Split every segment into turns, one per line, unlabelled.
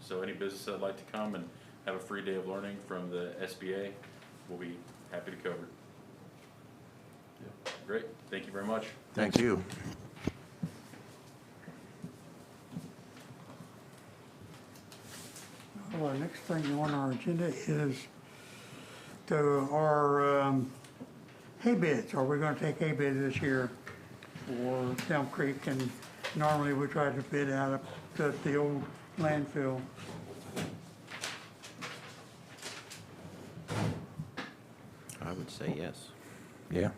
So any business that'd like to come and have a free day of learning from the SBA, we'll be happy to cover. it. Great, thank you very much.
Thank you.
Well, our next thing on our agenda is to, our um, hay bids. Are we gonna take hay bids this year for Elm Creek? And normally we try to bid out of the, the old landfill.
I would say yes.
Yeah.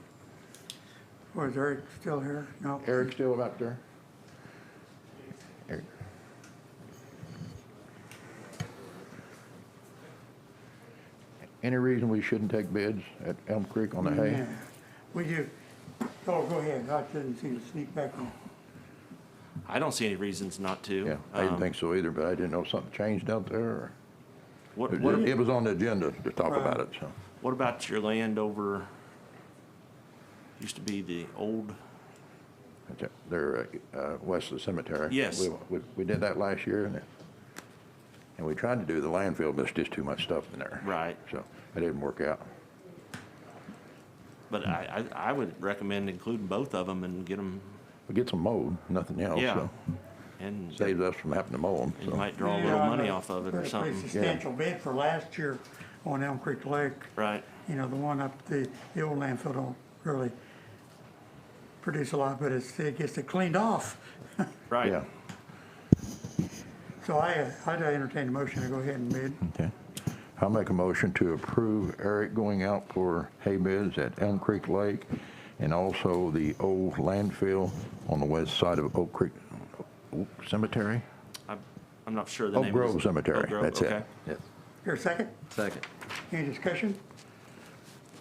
Or is Eric still here? No.
Eric still up there? Eric. Any reason we shouldn't take bids at Elm Creek on the hay?
Yeah. We do, oh, go ahead. I didn't see you sneak back on.
I don't see any reasons not to.
Yeah, I didn't
Um,
think so either, but I didn't know something changed out there. or-
What,
It
what,
it was on the agenda to talk
Right.
about it, so.
what about your land over, used to be the old,
That's it. They're uh, uh, west of the cemetery.
Yes.
We- We, we did that last year, and, it- and we tried to do the landfill, but it's just too much stuff in there.
Right.
So, it didn't work out.
but I, I, I would recommend including both of them and get them,
We get some mowed, nothing else,
yeah.
so.
And
Saves us from having to mow them,
and you
so.
might draw a
Yeah,
little
I
money
know.
off of it or
Pretty
something,
Substantial bid for last year on Elm Creek Lake.
right?
you know, the one up the, the old landfill don't really produce a lot, but it's, it gets it cleaned off.
Yeah,
Right.
So I, uh, I'd entertain the motion to go ahead and bid.
okay. I'll make a motion to approve Eric going out for hay bids at Elm Creek Lake and also the old landfill on the west side of Oak Creek Oak Cemetery?
I'm, I'm not sure the name.
Oak
of
Grove
this-
Cemetery,
Oak Grove,
that's it.
okay.
Yes.
Here, second,
Second.
any discussion?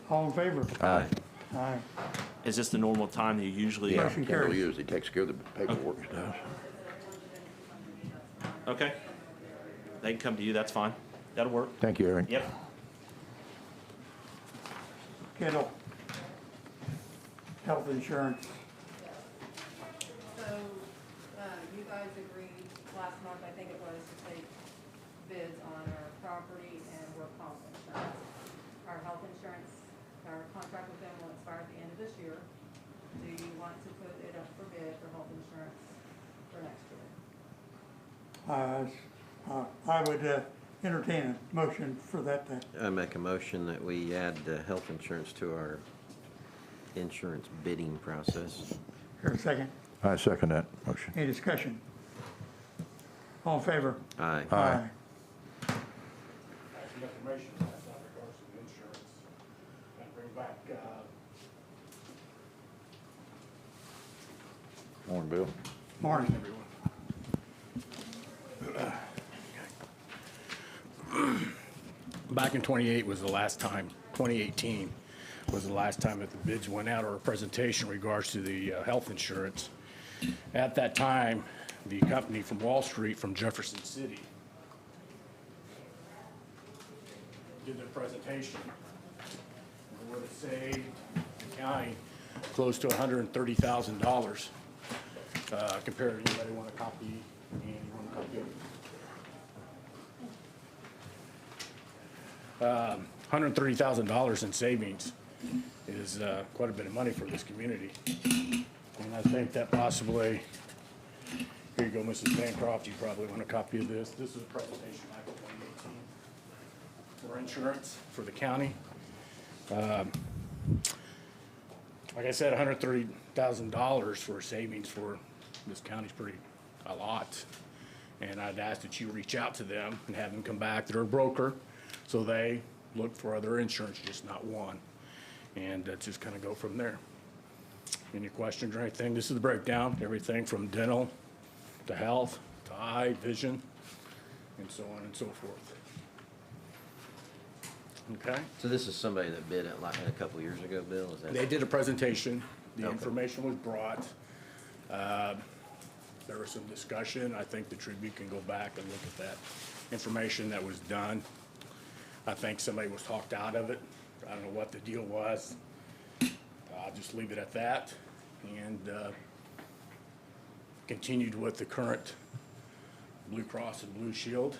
All in favor?
Aye.
Aye.
Is this the normal time that you usually?
Yeah,
Motion
Kendall
carries.
usually takes care of the paperwork stuff.
Okay. They can come to you, that's fine. That'll work.
Thank you, Eric.
Yep.
Kendall. Health insurance,
So, uh, you guys agreed last month, I think it was, to take bids on our property and work comp insurance. Our health insurance, our contract with them will expire at the end of this year. Do you want to put it up for bid for health insurance for next
uh,
year?
uh, I would uh, entertain a motion for that to
I make a motion that we add uh, health insurance to our insurance bidding process.
Here, second,
I second that motion.
any discussion? All in favor?
Aye.
Aye.
some information last night regards to the insurance. And bring back, uh,
Morning, Bill.
Morning.
back in 28 was the last time, 2018 was the last time that the bids went out or a presentation in regards to the uh, health insurance. At that time, the company from Wall Street, from Jefferson City, did their presentation. It would have saved the county close to $130,000 uh, compared to anybody want a copy, and you want a copy of it. 130,000 in savings is uh, quite a bit of money for this community. And I think that possibly, here you go, Mrs. Bancroft, you probably want a copy of this. This is a presentation back in 2018 for insurance for the county. Um, Like I said, $130,000 for savings for this county's pretty, a lot. And I'd ask that you reach out to them and have them come back, they're a broker, so they look for other insurance, just not one. And uh, just kind of go from there. Any questions or anything? This is the breakdown, everything from dental to health to eye, vision, and so on and so forth. Okay?
So this is somebody that bid it like a couple years ago, Bill, is that?
They did a presentation, the
Okay.
information was brought. Uh, There was some discussion, I think the Tribune can go back and look at that information that was done. I think somebody was talked out of it, I don't know what the deal was. I'll just leave it at that, and uh, continued with the current Blue Cross and Blue Shield